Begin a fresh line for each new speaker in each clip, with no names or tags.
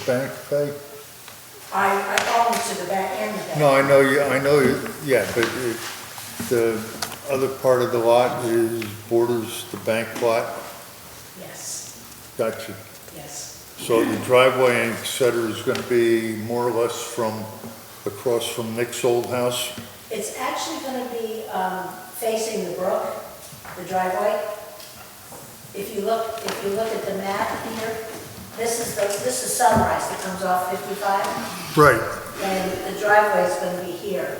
Hispanic thing?
I, I follow to the back end of that.
No, I know you, I know you, yeah, but it, the other part of the lot is borders the bank lot.
Yes,
Gotcha.
yes,
So the driveway in Exeter is gonna be more or less from, across from Nick's old house?
it's actually gonna be, um, facing the brook, the driveway. If you look, if you look at the map here, this is the, this is Sunrise that comes off fifty-five,
Right.
and the driveway is gonna be here.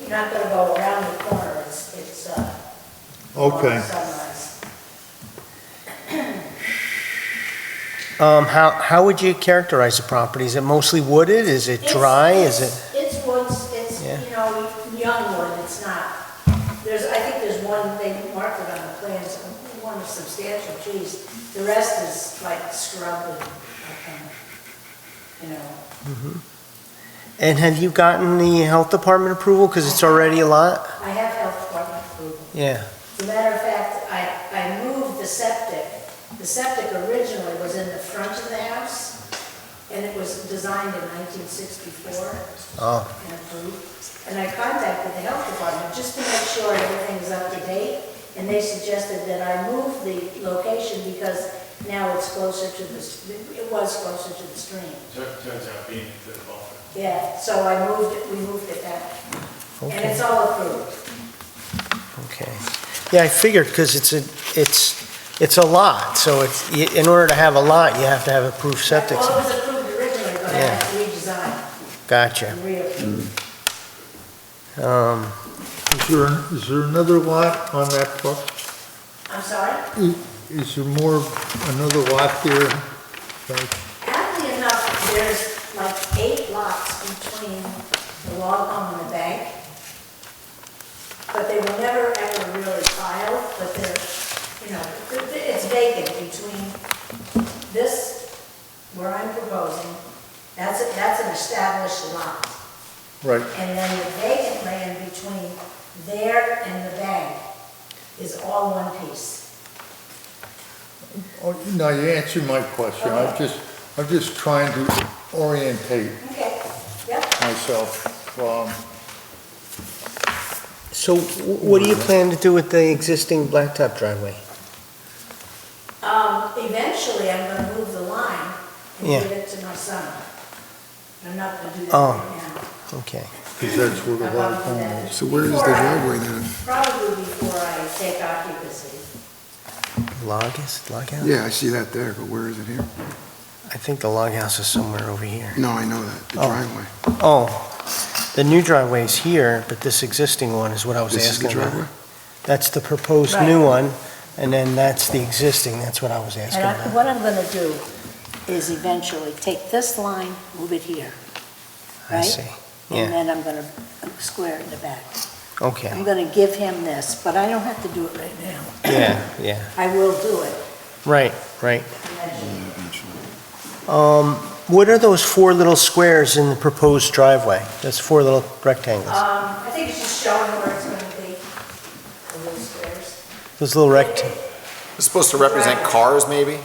You're not gonna go around the corner, it's, it's, uh, along
Okay.
Sunrise.
Um, how, how would you characterize the property? Is it mostly wooded? Is it
It's-
dry? Is it?
it's- It's woods, it's,
Yeah.
you know, young wood, it's not, there's, I think there's one, they marked it on the plans, one substantial trees. The rest is like scrub and, you know,
And have you gotten the health department approval? Because it's already a lot?
I have health department approval.
Yeah.
As a matter of fact, I, I moved the septic. The septic originally was in the front of the house, and it was designed in 1964.
Oh,
and approved. And I contacted the health department just to make sure everything's up to date, and they suggested that I move the location because now it's closer to the, s- it was closer to the stream.
Tur- Turns out being a good buffer.
Yeah, so I moved it, we moved it back. And
okay,
it's all approved.
okay. Yeah, I figured, because it's a, it's, it's a lot, so it's, y- in order to have a lot, you have to have approved septic.
Well, it was approved originally, but I had to redesign
Gotcha.
and reapprove.
Um,
Is there, is there another lot on that pro-
I'm sorry?
i Is there more, another lot there? Like,
Aptly enough, there's like eight lots between the log home and the bank, but they were never ever really filed, but they're, you know, th- th- it's vacant between this, where I'm proposing, that's, a- that's an established lot,
Right,
and then the vacant land between there and the bank is all one piece.
Oh, now you answered my question, I'm just, I'm just trying to orientate
Okay, yep.
myself, um,
So wh- what do you plan to do with the existing blacktop driveway?
Um, eventually, I'm gonna move the line and
Yeah.
give it to my son. I'm not gonna do that
Oh.
right now.
Okay.
because that's where the lot of home is.
Probably
So where is the
before I-
driveway then?
Probably before I take occupancy.
Log is, log house?
Yeah, I see that there, but where is it here?
I think the log house is somewhere over here.
No, I know that, the
Oh.
driveway.
Oh, the new driveway is here, but this existing one is what I was
This is the
asking
driveway?
about. That's the proposed new one, and then that's the existing, that's what I was asking
And I-
about.
what I'm gonna do is eventually take this line, move it here,
I
right?
see,
and
yeah,
then I'm gonna square it in the back. I'm
okay,
gonna give him this, but I don't have to do it right now.
yeah, yeah,
I will do it
right, right.
eventually.
Um, what are those four little squares in the proposed driveway? That's four little rectangles,
Um, I think it's just showing where it's gonna be, the little squares.
those little rect,
It's supposed to represent cars, maybe?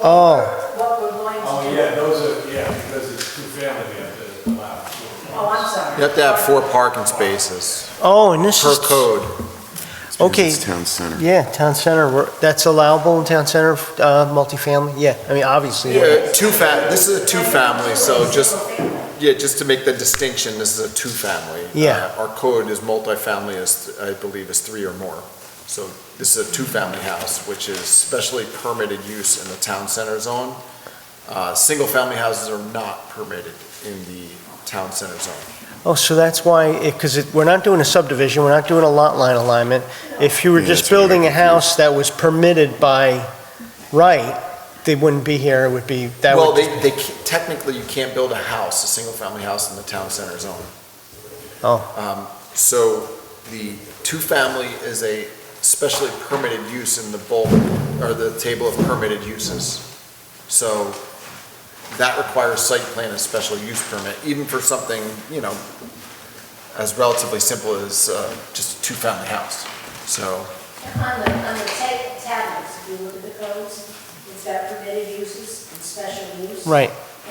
oh,
What we're going to do.
Oh, yeah, those are, yeah, because it's two family, we have to allow. four.
Oh, I'm sorry.
You have to have four parking spaces
oh, and this
per
is.
code.
It's because
Okay.
It's town center.
Yeah, town center, we're- that's allowable in town center, uh, multifamily, yeah, I mean, obviously. we're-
Yeah, two fa, this is a two-family, so just, yeah, just to make the distinction, this is a two-family.
Yeah.
Uh, Our code is multifamily is, I believe, is three or more. So this is a two-family house, which is specially permitted use in the town center zone. Uh, single-family houses are not permitted in the town center zone.
Oh, so that's why, because it, we're not doing a subdivision, we're not doing a lot line alignment. If you were
Yeah,
just
that's what I
building a
got
house that was permitted by right, they wouldn't be here, it would be, that
Well,
would,
they, they, ca- technically, you can't build a house, a single-family house in the town center zone.
Oh.
Um, so the two-family is a specially permitted use in the bulk, or the table of permitted uses. So that requires site plan and special use permit, even for something, you know, as relatively simple as, uh, just a two-family house. So,
On the, on the ta- tablets, if you look at the codes, it's got permitted uses and special use.
right,